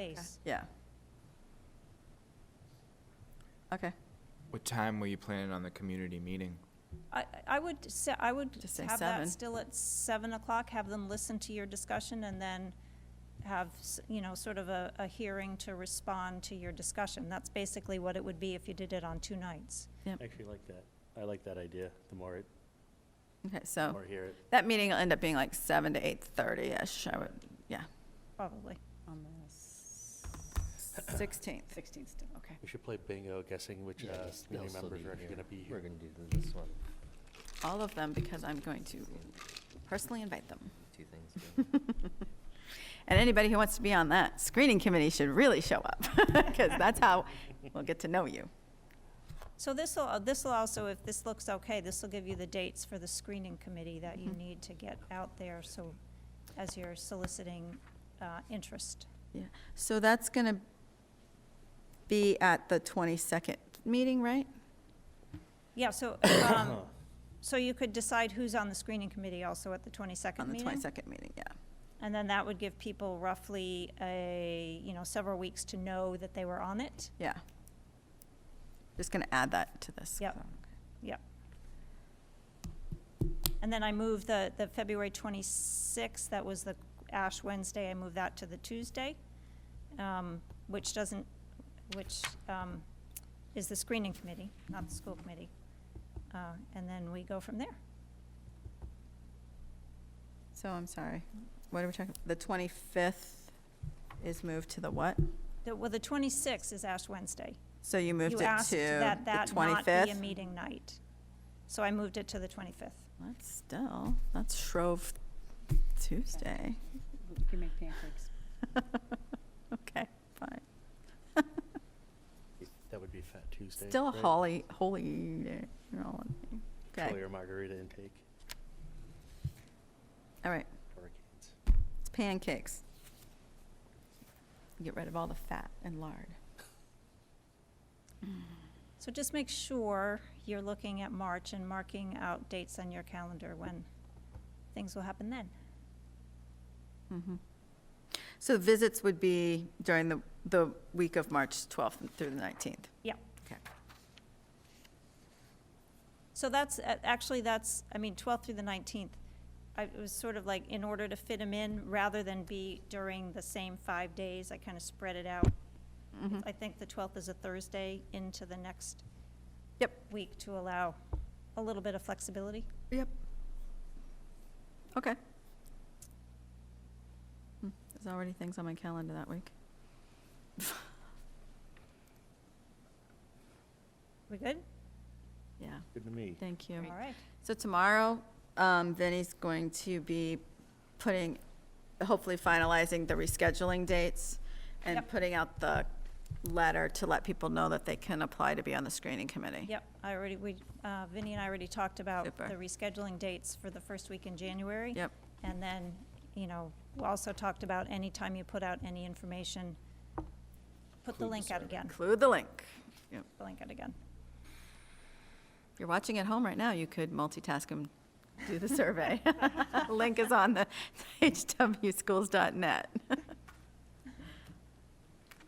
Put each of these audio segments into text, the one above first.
place. Yeah. Okay, What time were you planning on the community meeting? I, I would say, I would Just say have seven. that still at seven o'clock, have them listen to your discussion and then have, s- you know, sort of a, a hearing to respond to your discussion. That's basically what it would be if you did it on two nights. Actually, like that. I like that idea. The more it, okay, the so more I hear it. that meeting will end up being like seven to eight thirty-ish, I would, yeah. Probably. on the Sixteenth, 16th. okay. We should play bingo, guessing which uh, Yes, they'll community still members are actually here. going to be We're here. going to do this one, All of them, because I'm going to personally invite them. two things. yeah. And anybody who wants to be on that screening committee should really show up, because that's how we'll get to know you. So this'll, this'll also, if this looks okay, this'll give you the dates for the screening committee that you Mhm. need to get out there, so as you're soliciting, uh, interest. So that's going to be at the 22nd meeting, right? Yeah, so, um, so you could decide who's on the screening committee also at the twenty-second On the meeting? 22nd meeting, yeah. And then that would give people roughly a, you know, several weeks to know that they were on it. Yeah. Just going to add that to this. Yep. And then I moved the, the February 26th, that was the Ash Wednesday, I moved that to the Tuesday, um, which doesn't, which um, is the screening committee, not the school committee. Uh, And then we go from there. So I'm sorry. What are we talking, the 25th is moved to the what? The- Well, the 26th is Ash Wednesday. So you moved it You asked to that the that not be a 25th? meeting night. So I moved it to the 25th. That's still, that's Shrove Tuesday. You can make pancakes. Okay, fine. That would be Fat Tuesday. Still a right? holy, holy, you know, okay. Chili or margarita intake All right, for our kids. it's pancakes. Get rid of all the fat and lard. So just make sure you're looking at March and marking out dates on your calendar when things will happen then. Mhm. So visits would be during the, the week of March 12th through the 19th? Yep. Okay. So that's, uh, actually, that's, I mean, 12th through the 19th. I, it was sort of like, in order to fit them in, rather than be during the same five days, I kind of spread it out. Mhm. I think the 12th is a Thursday into the next Yep. week to allow a little bit of flexibility. Yep. Okay. Hmm, There's already things on my calendar that week. We good? Yeah, Good to me. thank All you. right. So tomorrow, um, Vinnie's going to be putting, hopefully finalizing the rescheduling dates and Yep. putting out the letter to let people know that they can apply to be on the screening committee. Yep, I already, we, uh, Vinnie and I already talked about Super. the rescheduling dates for the first week in January. Yep. And then, you know, we also talked about anytime you put out any information, put the Include the link out survey. again, Include the link. Put the link out again. If you're watching at home right now, you could multitask and do the survey. Link is on the hwschools.net.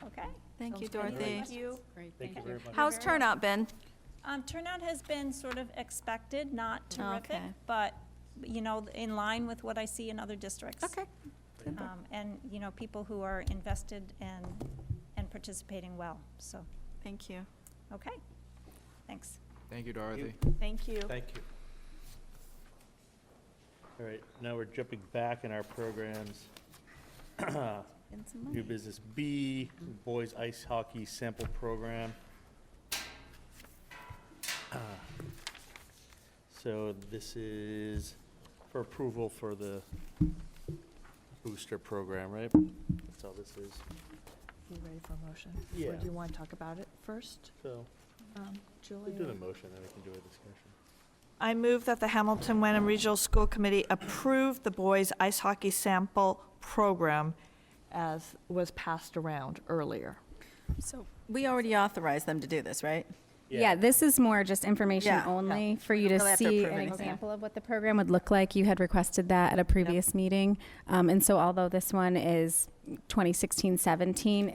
Okay? Thank you, Sounds great. Dorothy. Thank you. Great, Thank thank you you. very much. How's very turnout been? Um, turnout has been sort of expected, not terrific, Okay. but, you know, in line with what I see in other districts. Okay. Um, and, you know, people who are invested and, and participating well, so, Thank you. okay, thanks. Thank you, Dorothy. Thank you. Thank you. All right, now we're jumping back in our programs. New business B, boys ice hockey sample program. Ah. So this is for approval for the booster program, right? That's all this is. You ready for a motion? Or Yeah. do you want to talk about it first, So um, we do the Julie? motion, then we can do a discussion. I move that the Hamilton Wenham Regional School Committee approve the boys' ice hockey sample program As was passed around earlier. So we already authorized them to do this, right? Yeah, this is more just information Yeah. only for you don't to really have to see approve an anything. example of what the program would look like. You had requested that at a previous meeting. Um, And so although this one is 2016-17,